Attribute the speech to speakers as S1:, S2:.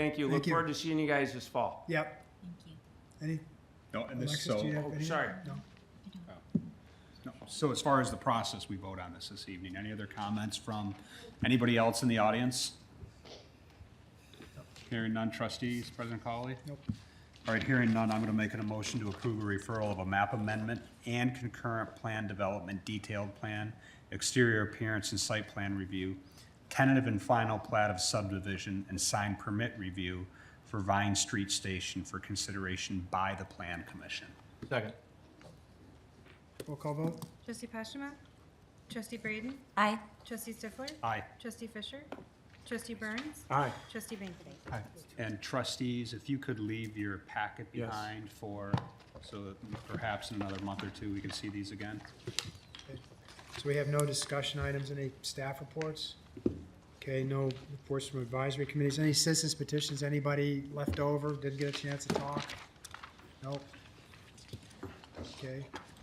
S1: Thank you.
S2: Thank
S1: Look
S2: you.
S1: forward to seeing you guys this fall.
S2: Yep. Any,
S3: No, and this,
S2: Alexis,
S3: so,
S2: do you have
S1: Oh,
S2: any?
S1: sorry.
S2: No.
S3: no, so as far as the process, we vote on this this evening. Any other comments from anybody else in the audience? Hearing none, trustees, President Colley?
S2: Nope.
S3: All right, hearing none, I'm going to make a motion to approve a referral of a map amendment and concurrent plan development, detailed plan, exterior appearance and site plan review, tentative and final plat of subdivision and sign permit review for Vine Street Station for consideration by the Plan Commission.
S1: Second.
S2: Roll call vote?
S4: Trustee Pashima? Trustee Braden?
S5: Aye.
S4: Trustee Stifler?
S3: Aye.
S4: Trustee Fisher? Trustee Burns?
S1: Aye.
S4: Trustee Bankett?
S3: And trustees, if you could leave your packet behind for, so that perhaps in another month or two, we can see these again.
S2: So we have no discussion items, any staff reports? Okay, no reports from advisory committees, any citizens petitions, anybody left over, didn't get a chance to talk? Nope. Okay,